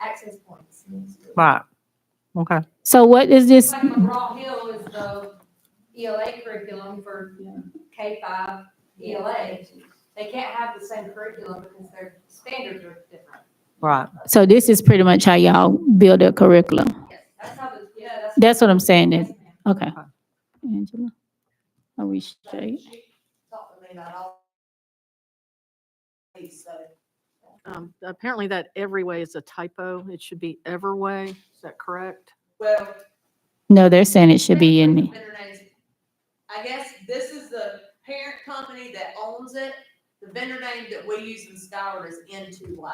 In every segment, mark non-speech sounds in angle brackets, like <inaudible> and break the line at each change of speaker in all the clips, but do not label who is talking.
access points.
Right. Okay.
So what is this?
Like McGraw Hill is the ELA curriculum for K five ELA. They can't have the same curriculum because their standards are different.
Right.
So this is pretty much how y'all build a curriculum.
Yes, that's how the, yeah, that's.
That's what I'm saying
Yes,
then.
ma'am.
Okay. Angela, are we straight?
Talk to me about all. Please, so.
Um, apparently that every way is a typo. It should be ever way. Is that correct?
Well,
No, they're saying it should be in. the-
better names. I guess this is the parent company that owns it. The vendor name that we use in Skyward is N2Y.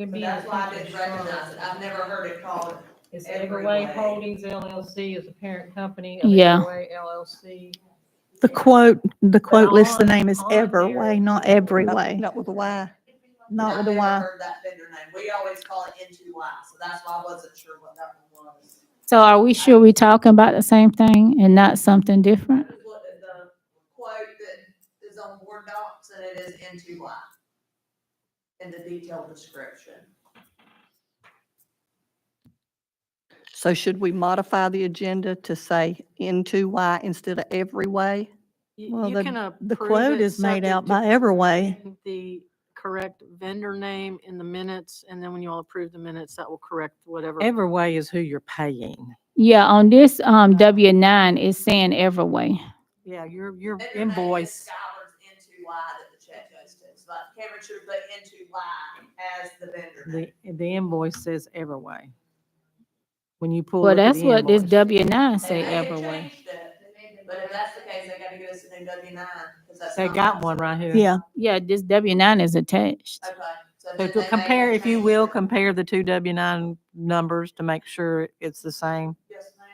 So that's why I didn't recognize it. I've never heard it called.
It's
Everway.
Everway Holdings LLC is the parent company of
Yeah.
Everway LLC.
The quote, the quote lists the
on-
name as
on there-
Everway, not Every Way.
Not with a Y.
Not with
I've
a
never
Y.
Heard that vendor name. We always call it N2Y, so that's why I wasn't sure what that one was.
So are we sure we talking about the same thing and not something different?
I just looked at the quote that is on Word Docs and it is N2Y in the detailed description.
So should we modify the agenda to say into Y instead of every way?
You-
Well,
you
the-
can
The
approve
quote
it
is made
subject
out
to
by Everway.
putting <laughs> The correct vendor name in the minutes, and then when you all approve the minutes, that will correct whatever.
Every way is who you're paying.
Yeah, on this, um, W nine is saying Everway.
Yeah, your, your
Vendor name is
invoice.
Skylar's N2Y that the check goes to. So like Cameron should have put N2Y as the vendor name.
The, the invoice says every way. When you pull.
Well,
up at
that's
the
what this
invoice.
W nine say
They may have
Everway.
changed it, But if that's the case, they gotta give us a new W nine, because that's.
They
not
got
us.
one right here.
Yeah,
Yeah, this W nine is attached.
Okay.
So
then
to
they may
compare,
have
if you
changed
will,
it.
compare the two W nine numbers to make sure it's the same.
Yes, ma'am.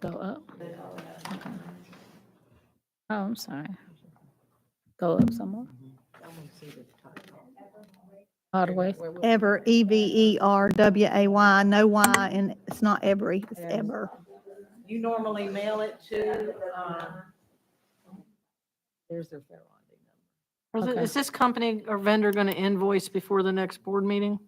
Go up. Oh, I'm sorry. Go up some more. All the way.
Ever, E V E R W A Y, no Y, and it's not Every, it's
Yes.
Ever.
You normally mail it to, um, there's their fair ID number.
Or is it-
Okay.
Is this company or vendor going to invoice before the next board meeting?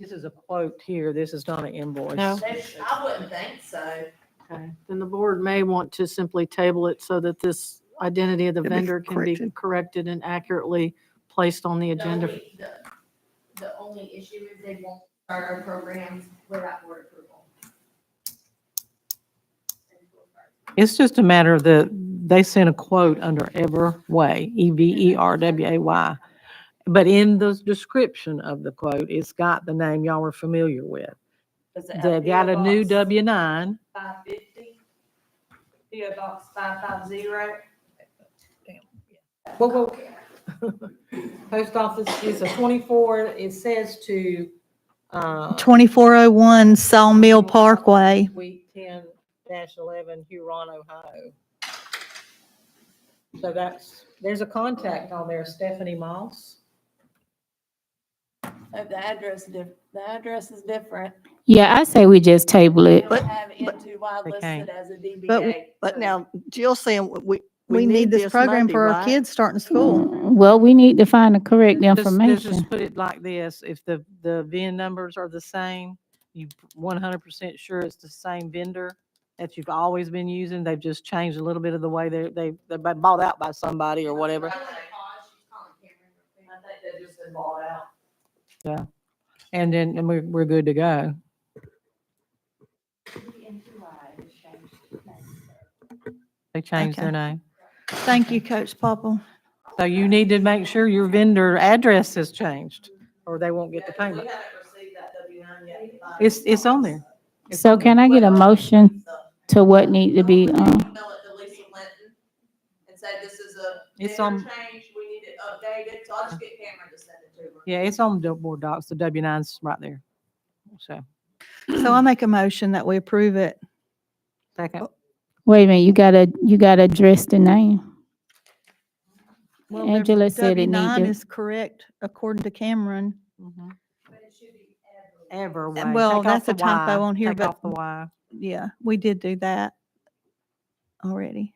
This is a quote here. This is not an invoice.
No.
They- I wouldn't think so.
Okay, then the board may want to simply table it so that this identity of the
Can be
vendor can be
corrected.
corrected and accurately placed on the
The
agenda.
only- The the only issue is they won't start our programs without board approval.
It's just a matter of the, they sent a quote under Everway, E V E R W A Y. But in the description of the quote, it's got the name y'all were familiar with. They've got a new W nine.
Five fifty, PO box five five zero.
Well, Post office is a twenty-four, it says to, uh,
2401 Sawmill Parkway.
week ten dash eleven, Huron, Ohio. So that's, there's a contact on there, Stephanie Moss.
Oh, The address diff, the address is different.
Yeah, I say we just table it.
They have N2Y
They
listed
can't.
as a DBA.
But-
so
But now Jill's saying we.
We need this program
Monday,
for our
right?
kids starting school.
Mm, Well, we need to find the correct
Let's- let's
information.
Just put it like this, if the, the VIN numbers are the same, you one hundred percent sure it's the same vendor that you've always been using, they've just changed a little bit of the way they, they, they've been bought out by somebody or whatever.
I think they've just been bought out.
And then, and we're, we're good to go. They changed their
Okay.
name.
Thank you, Coach Popple.
So you need to make sure your vendor address has changed or they won't get the
Yeah, 'cause
payment.
We haven't received that W nine yet.
It's, it's on there. It's
So
on there.
can I get a motion to what need to be, um,
Email it to Lisa Linton and say this is a
It's
vendor
on-
change, we need it updated, so I'll just get Cameron to send it to her.
Yeah, it's on the board docs, the W nine's right there. So,
So I make a motion that we approve it.
second.
wait a minute, you gotta, you gotta address the name.
Well, the
Angela said it
W9
needed-
is correct according to Cameron.
Mhm.
But it should be every.
Ever. way.
Mm-hmm. well,
Take off
that's a
the
typo
Y.
on here,
Take
but-
off the Y.
Yeah, we did do that already.